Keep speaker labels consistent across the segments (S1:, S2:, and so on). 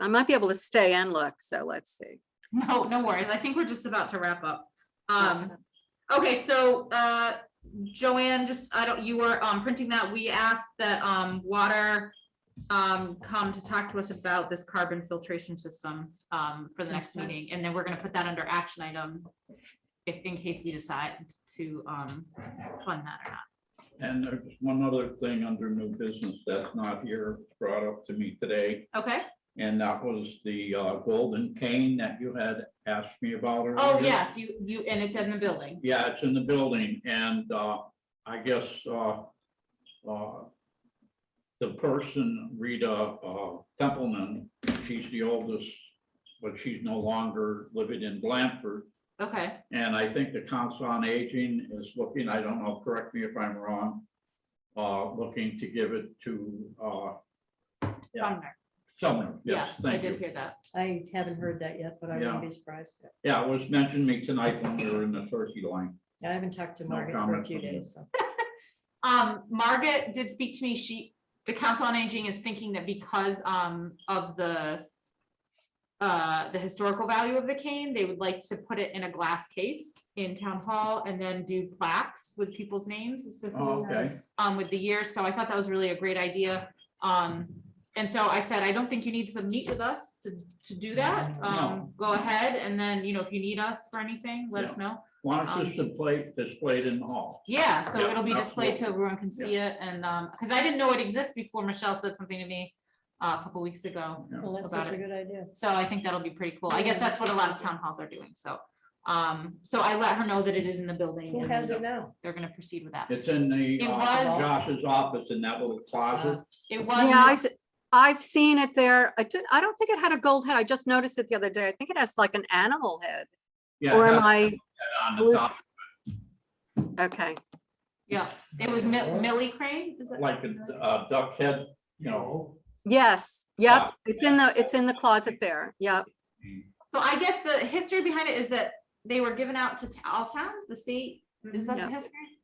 S1: I might be able to stay and look, so let's see.
S2: No, no worries. I think we're just about to wrap up. Um, okay, so, uh, Joanne, just, I don't, you were, um, printing that. We asked that, um, water, um, come to talk to us about this carbon filtration system, um, for the next
S1: Okay.
S2: meeting, and then we're gonna put that under action item if, in case we decide to, um, fund that or not.
S3: And there's one other thing under new business that's not here, brought up to me today,
S2: Okay,
S3: and that was the uh, golden cane that you had asked me about.
S2: oh,
S3: earlier.
S2: yeah, you, you, and it's in the building.
S3: Yeah, it's in the building and uh, I guess uh, uh, the person, Rita uh, Templeman, she's the oldest, but she's no longer living in Blanford.
S2: Okay,
S3: And I think the Council on Aging is looking, I don't know, correct me if I'm wrong, uh, looking to give it to, uh, Yeah.
S2: Sumner.
S3: Sumner.
S2: Yeah,
S3: Yes,
S2: I
S3: thank
S2: did
S3: you.
S2: hear that.
S4: I haven't heard that yet, but I wouldn't be surprised.
S3: Yeah, it was mentioned to me tonight when we were in the turkey line.
S4: I haven't talked to
S3: No
S4: Margaret for a
S3: comment
S4: few
S3: from you.
S4: days, so.
S2: Um, Margaret did speak to me, she, the Council on Aging is thinking that because, um, of the uh, the historical value of the cane, they would like to put it in a glass case in Town Hall and then do plaques with people's names as to who
S3: Oh, Okay.
S2: um, with the year, so I thought that was really a great idea. Um, and so I said, I don't think you need to meet with us to, to do that. Um, go ahead, and then, you know, if you need us for anything, let us know.
S3: Why don't
S2: Um,
S3: you display, display it in the hall?
S2: Yeah, so
S3: Yeah, uh,
S2: it'll be displayed so
S3: absolutely.
S2: everyone can see it, and, um, because I didn't know it exists before Michelle said something to me uh, a couple weeks ago.
S3: Yeah.
S4: Well, that's
S2: About
S4: such a good idea.
S2: So I think that'll be pretty cool. I guess that's what a lot of town halls are doing, so. Um, so I let her know that it is in the building,
S4: Who
S2: and
S4: has it now?
S2: they're gonna proceed with that.
S3: It's in the,
S2: It
S3: uh,
S2: was- Uh,
S3: Josh's office in that little closet.
S2: It was. in
S1: Yeah,
S2: this-
S1: I've, I've seen it there. I did, I don't think it had a gold head. I just noticed it the other day. I think it has like an animal head.
S3: Yeah,
S1: Or am
S3: that's
S1: I,
S3: on the
S1: halluc-
S3: top,
S1: okay,
S2: Yeah, it was Mi- Millie Crane. is that-
S3: Like a uh, duck head, you know.
S1: yes, yep, it's in the, it's in the closet there, yep.
S2: So I guess the history behind it is that they were given out to t- all towns, the state, is that the
S1: Yeah.
S4: Mm-hmm.
S2: history?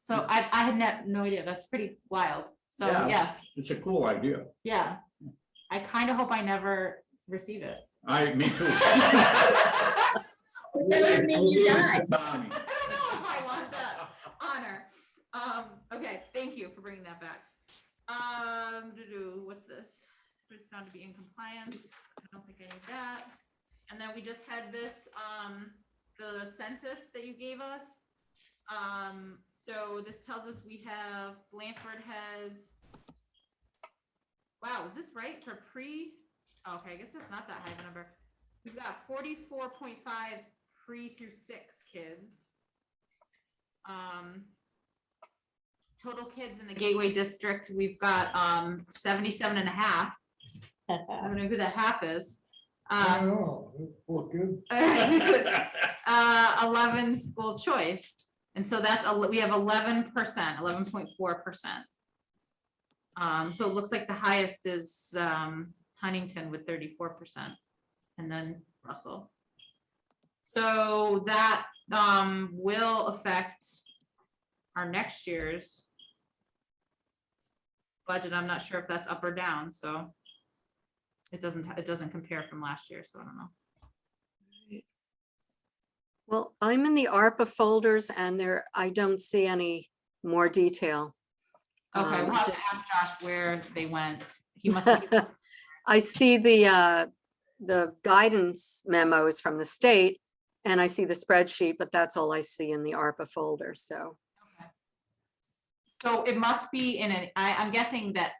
S2: So I, I had no, no idea, that's pretty wild, so,
S3: Yeah.
S2: yeah,
S3: It's a cool idea.
S2: yeah. I kind of hope I never receive it.
S3: I, me too. Economy.
S2: I don't know if I want that honor. Um, okay, thank you for bringing that back. Um, doo-doo, what's this? Just found to be in compliance. I don't think I need that. And then we just had this, um, the census that you gave us. Um, so this tells us we have, Blanford has. Wow, is this right for pre? oh, Okay, I guess that's not that high of a number. We've got forty-four point five pre through six kids. Um, total kids in the Gateway District, we've got, um, seventy-seven and a half. I don't know who that half is.
S5: I
S2: Um,
S5: don't know, it looked good.
S3: Oh.
S2: uh, eleven school choice. And so that's, ele- we have eleven percent, eleven point four percent. Um, so it looks like the highest is, um, Huntington with thirty-four percent and then Russell. So that, um, will affect our next year's budget. I'm not sure if that's up or down, so it doesn't, it doesn't compare from last year, so I don't know.
S1: Well, I'm in the ARPA folders and there, I don't see any more detail.
S2: Okay,
S1: Um,
S2: we'll have to ask Josh where they went. He must have,
S1: I see the, uh, the guidance memos from the state and I see the spreadsheet, but that's all I see in the ARPA folder, so.
S2: so it must be in an, I, I'm guessing that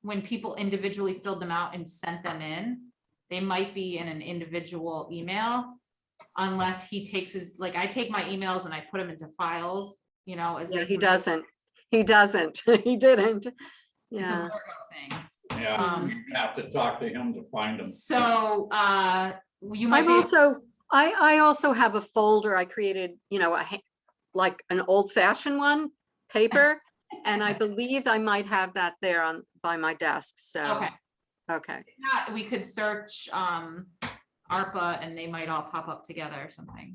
S2: when people individually filled them out and sent them in, they might be in an individual email. Unless he takes his, like, I take my emails and I put them into files, you know, as.
S1: Yeah,
S2: they
S1: he
S2: come in.
S1: doesn't, he doesn't, he didn't.
S2: It's a
S1: Yeah,
S2: Virgo thing.
S3: Yeah,
S2: Um,
S3: you have to talk to him to find him.
S2: So, uh, you might
S1: I've
S2: be,
S1: also, I, I also have a folder I created, you know, a ha- like an old fashioned one, paper. And I believe I might have that there on, by my desk, so,
S2: okay,
S1: okay,
S2: If not, we could search, um, ARPA and they might all pop up together or something.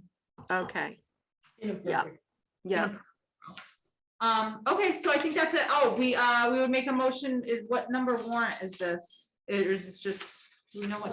S1: okay,
S4: Inappropriate.
S1: yeah.
S2: Um, okay, so I think that's it. Oh, we, uh, we would make a motion, is what number warrant is this? Or Is this just you know what